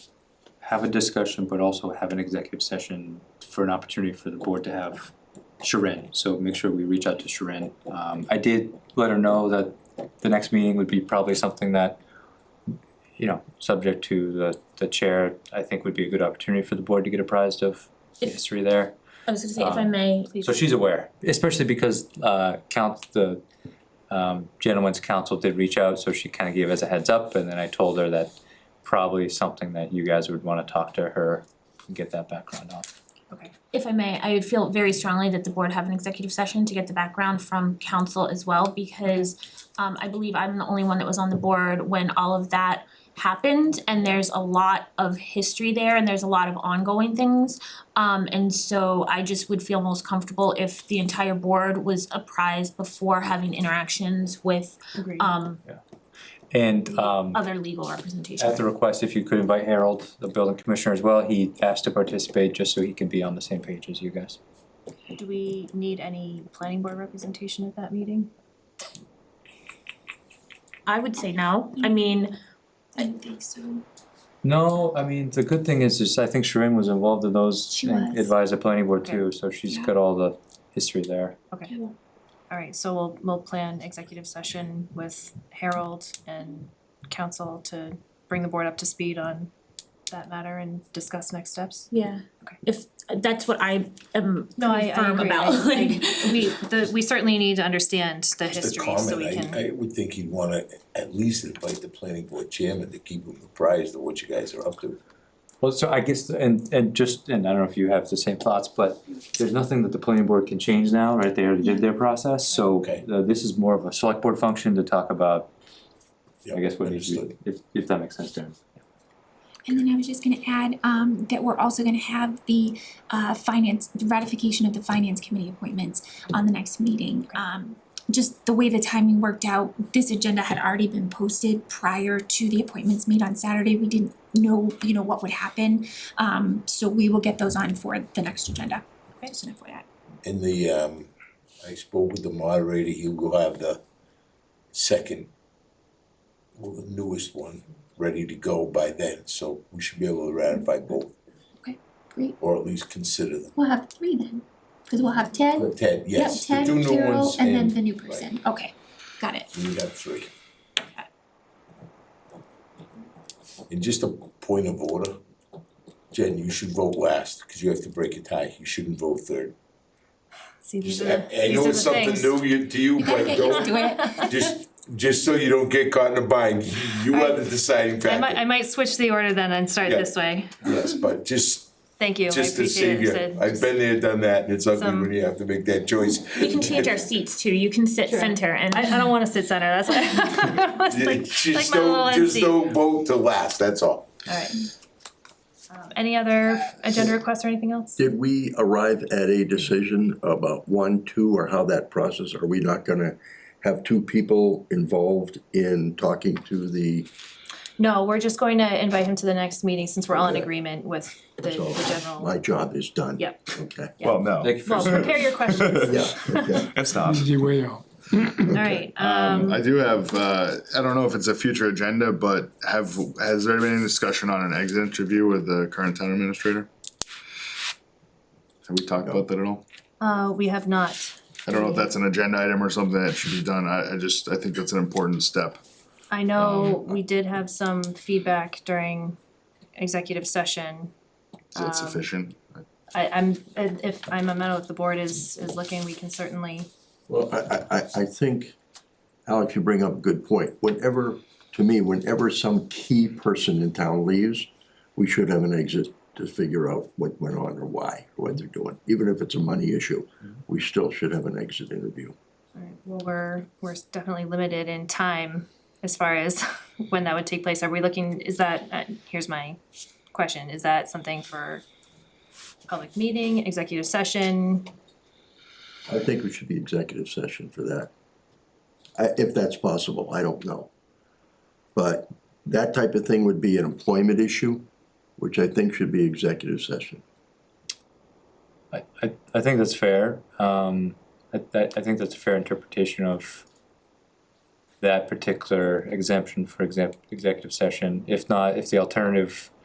have a discussion, but also have an executive session for an opportunity for the board to have Sharon, so make sure we reach out to Sharon. Um, I did let her know that the next meeting would be probably something that, you know, subject to the, the chair, I think would be a good opportunity for the board to get apprised of the If- history there. I was gonna say, if I may, please. Um, So she's aware, especially because uh count the um gentleman's counsel did reach out, so she kinda gave us a heads up and then I told her that probably something that you guys would wanna talk to her and get that background on. If I may, I would feel very strongly that the board have an executive session to get the background from council as well, because um I believe I'm the only one that was on the board when all of that happened, and there's a lot of history there, and there's a lot of ongoing things. Um and so I just would feel most comfortable if the entire board was apprised before having interactions with Agreed. um And um other legal representation. at the request, if you could invite Harold, the building commissioner as well, he asked to participate just so he can be on the same page as you guys. Do we need any planning board representation at that meeting? I would say no, I mean, I don't think so. No, I mean, the good thing is is I think Sharon was involved in those She and was. advised the planning board too, so she's Yeah. got all the history there. Alright, so we'll we'll plan executive session with Harold and council to bring the board up to speed on that matter and discuss next steps. yeah, Okay. if, that's what I am No, I I firm agree. about, I- like. I- we the we certainly need to understand the Just a history so we comment, can, I I would think you'd wanna at least invite the planning board chairman to keep him apprised of what you guys are up to. Well, so I guess, and and just, and I don't know if you have the same thoughts, but there's nothing that the planning board can change now, right? They already did their process, so Okay. uh, this is more of a select board function to talk about, I guess, what needs to Understood. be, if if that makes sense, Darren. And then I was just gonna add, um, that we're also gonna have the, uh, finance, the ratification of the finance committee appointments on the next meeting. Um, just the way the timing worked out, this agenda had already been posted prior to the appointments made on Saturday. We didn't know, you know, what would happen, um, so we will get those on for the next agenda. Just an FYI. In the um, I spoke with the moderator, he will have the second, well, the newest one, ready to go by then, so we should be able to ratify both, Great, or at least consider them. we'll have three then, cause we'll have Ted, But Ted, yes, the two new ones and new person. okay, got it. we have three. And just a point of order, Jen, you should vote last, cause you have to break a tie, you shouldn't vote third. see these Just- are I the, I these know are the it's something things. new you- to you, gotta but get used don't, to it. just, just so you don't get caught in a bind, you are the deciding I might I factor. might switch the order then and start Yeah. this way. Yes, but just, Thank you, I just to appreciate save it, you, Sid. I've been there, done that, and it's ugly Some- when you have to make that choice. We can change our seats too, you can sit center and. I I don't wanna sit center, that's why I was Yeah, like, like Just my little don't, end just seat. don't vote to last, that's all. Alright. Um any other agenda requests or anything else? Did we arrive at a decision about one, two, or how that process, are we not gonna have two people involved in talking to the, No, we're just going to invite him to the next meeting since we're all in Okay. agreement with the so, the general. my job is done? Yep. Okay. Well, no, Thank you for Well, prepare your questions, Yeah, okay. it's not. Easy way out. alright, Um, um, I do have, uh, I don't know if it's a future agenda, but have, has there been any discussion on an exit interview with the current town administrator? Have we talked about that at all? uh, we have not, I don't know if that's an agenda item or something that should be done, I, I just, I think that's an important step. Um, I know we did have some feedback during executive session. Is that Um, sufficient? I I'm, if if I'm amenable, if the board is is looking, we can certainly, Well, I, I, I, I think, Alex, you bring up a good point. Whenever, to me, whenever some key person in town leaves, we should have an exit to figure out what went on or why, what they're doing. Even if it's a money issue, we still should have an exit interview. alright, well, we're we're definitely limited in time as far as when that would take place, are we looking, is that, uh, here's my question, is that something for public meeting, executive session, I think we should be executive session for that. I, if that's possible, I don't know. But that type of thing would be an employment issue, which I think should be executive session. I I I think that's fair, um I I I think that's a fair interpretation of that particular exemption for exec- executive session. If not, if the alternative